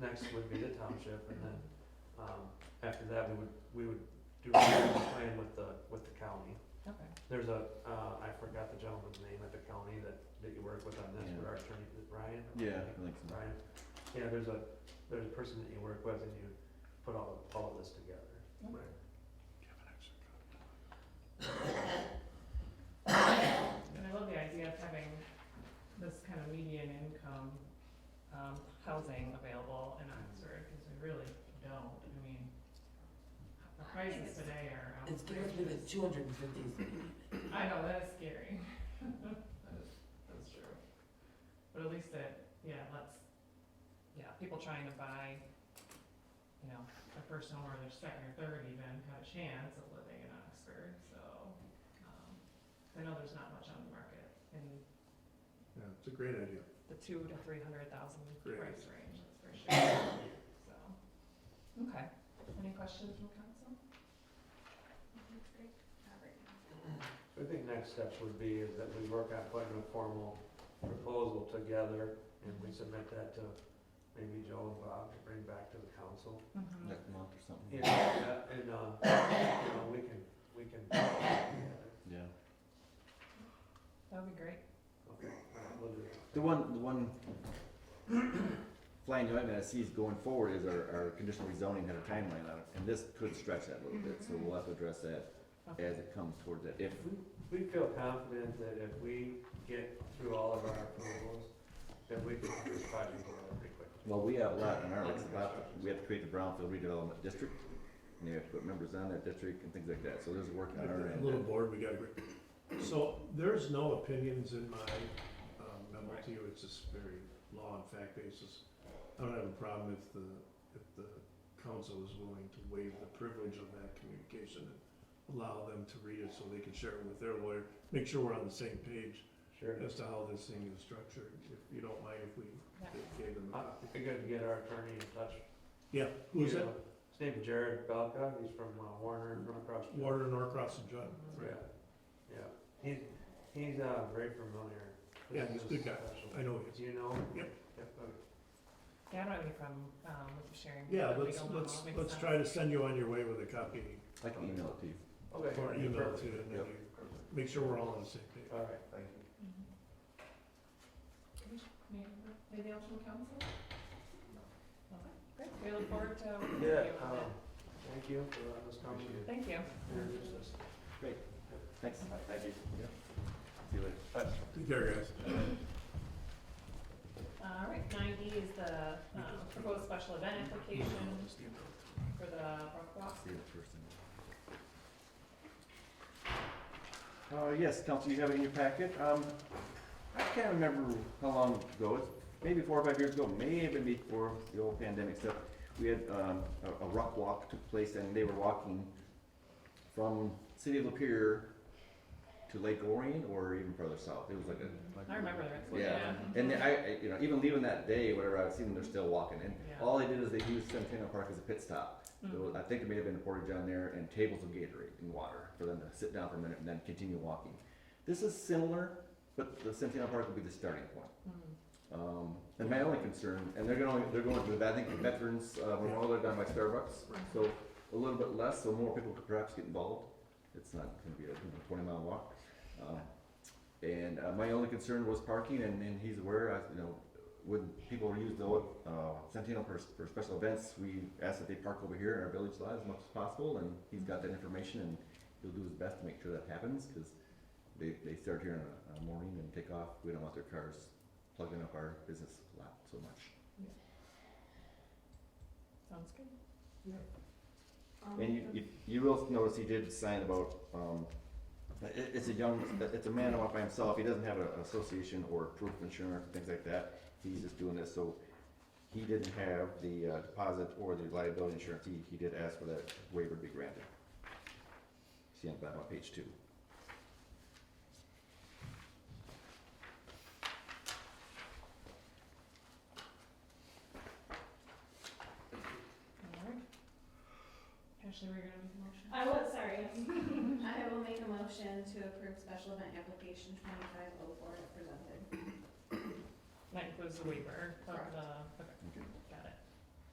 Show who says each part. Speaker 1: next would be the township, and then, um, after that, we would, we would do a plan with the, with the county.
Speaker 2: Okay.
Speaker 1: There's a, uh, I forgot the gentleman's name at the county that, that you work with on this, but our attorney, Ryan?
Speaker 3: Yeah, I think so.
Speaker 1: Ryan, yeah, there's a, there's a person that you work with, and you put all, all of this together.
Speaker 2: Right. And I love the idea of having this kind of median income, um, housing available in
Speaker 4: Mm-hmm.
Speaker 2: Oxford, cause we really don't, I mean, the prices today are
Speaker 4: It's scares me
Speaker 2: outrageous.
Speaker 4: that two hundred and fifty,
Speaker 2: I know, that is scary. That is, that's true. But at least it, yeah, let's, yeah, people trying to buy, you know, a first home or their second or third even have a chance of living in Oxford, so, um, I know there's not much on the market in
Speaker 5: Yeah, it's a great idea.
Speaker 2: the two to three hundred thousand
Speaker 5: Great.
Speaker 2: price range, that's for sure, so. Okay, any questions from council?
Speaker 1: I think next steps would be is that we work on putting a formal proposal together, and we submit that to maybe Joe and Bob to bring back to the council.
Speaker 2: Mm-hmm.
Speaker 3: Next month or something.
Speaker 1: Yeah, yeah, and, uh, you know, we can, we can, uh, okay,
Speaker 3: Yeah.
Speaker 2: That would be great.
Speaker 1: we'll do it.
Speaker 3: The one, the one flying joint I see is going forward is our, our conditional rezoning had a timeline on it, and this could stretch that a little bit, so we'll have to address that as it comes towards that, if,
Speaker 1: We feel confident that if we get through all of our approvals, that we can do this project pretty quickly.
Speaker 3: well, we have a lot in our, it's about, we have to create the brownfield redevelopment district, and you have to put members on that district and things like that, so there's work on our
Speaker 5: A
Speaker 3: end.
Speaker 5: little bored, we gotta agree. So there's no opinions in my um, memo to you, it's just very law and fact basis. I don't have a problem if the, if the council is willing to waive the privilege of that communication and allow them to read it so they can share it with their lawyer, make sure we're on the same page
Speaker 1: Sure.
Speaker 5: as to how this thing is structured, if you don't mind if we gave them a
Speaker 1: I
Speaker 5: copy.
Speaker 1: figured to get our attorney in touch.
Speaker 5: Yeah, who's
Speaker 1: You
Speaker 5: that?
Speaker 1: know, His name's Jared Belka, he's from uh, Warner, from across.
Speaker 5: Warder Norcross and Judd,
Speaker 1: Yeah,
Speaker 5: right?
Speaker 1: yeah, he's, he's, uh, very familiar. with
Speaker 5: Yeah, he's a
Speaker 1: this
Speaker 5: good guy.
Speaker 1: special-
Speaker 5: I know he is.
Speaker 1: Do you know? him?
Speaker 5: Yep.
Speaker 1: okay.
Speaker 2: Yeah, I don't have any problem, um, with you sharing.
Speaker 5: Yeah,
Speaker 2: that
Speaker 5: let's,
Speaker 2: legal memo.
Speaker 5: let's,
Speaker 2: Makes
Speaker 5: let's
Speaker 2: sense.
Speaker 5: try to send you on your way with a copy
Speaker 3: I can email it to you.
Speaker 1: Okay.
Speaker 5: or email to, and then
Speaker 3: Yep.
Speaker 5: you, make sure we're all on the same page.
Speaker 1: All right, thank you.
Speaker 2: Mm-hmm. Anything else from council? Okay, great, we look forward to working with you
Speaker 1: Yeah,
Speaker 2: on
Speaker 1: um, thank you for letting us come
Speaker 2: that.
Speaker 1: and
Speaker 2: Thank you.
Speaker 1: introduce us.
Speaker 3: Thanks. Thank you. Yeah. See you later.
Speaker 5: Take care, guys.
Speaker 2: All right, nine E is the, um, proposed special event application for the Brook Walk.
Speaker 3: See you first. Uh, yes, council, you have it in your packet. Um, I can't remember how long ago, it's maybe four or five years ago, may have been before the old pandemic stuff. We had, um, a, a rock walk took place and they were walking from city of Lapeer to Lake Orion or even further south. It was like a,
Speaker 2: I remember that, yeah.
Speaker 3: yeah. And then I, I- you know, even leaving that day, whatever, I've seen them, they're still walking. And
Speaker 2: Yeah.
Speaker 3: all they did is they used Centennial Park as a pit stop. So
Speaker 2: Mhm.
Speaker 3: I think it may have been a portage down there and tables of Gatorade and water for them to sit down for a minute and then continue walking. This is similar, but the Centennial Park would be the starting point.
Speaker 2: Mhm.
Speaker 3: Um, and my only concern, and they're going, they're going to, I think the veterans, uh, memorial they're down by Starbucks, so a little bit less, so more people could perhaps get involved. It's not gonna be a you know, twenty mile walk. Um, and, uh, my only concern was parking and, and he's aware, I, you know, when people use the, uh, Centennial for, for special events, we ask that they park over here in our village lot as much as possible and he's got that information and he'll do his best to make sure that happens, cause they, they start here in the uh, morning and take off, we don't want their cars plugging up our business lot so much.
Speaker 2: Sounds good.
Speaker 3: And you, you, you will notice he did sign about, um, i- i it's a young, it's a man out by himself, he doesn't have a- an association or proof of insurance, things like that. He's just doing this, so he didn't have the uh, deposit or the liability insurance, he, he did ask for that waiver to be granted. See on the bottom of page two.
Speaker 2: All right. Ashley, we're gonna make a motion?
Speaker 1: Uh,
Speaker 6: I was, sorry. I will make a motion to approve special event application twenty-five oh four presented.
Speaker 2: That includes the waiver of
Speaker 6: Correct.
Speaker 2: the, okay.
Speaker 3: Okay.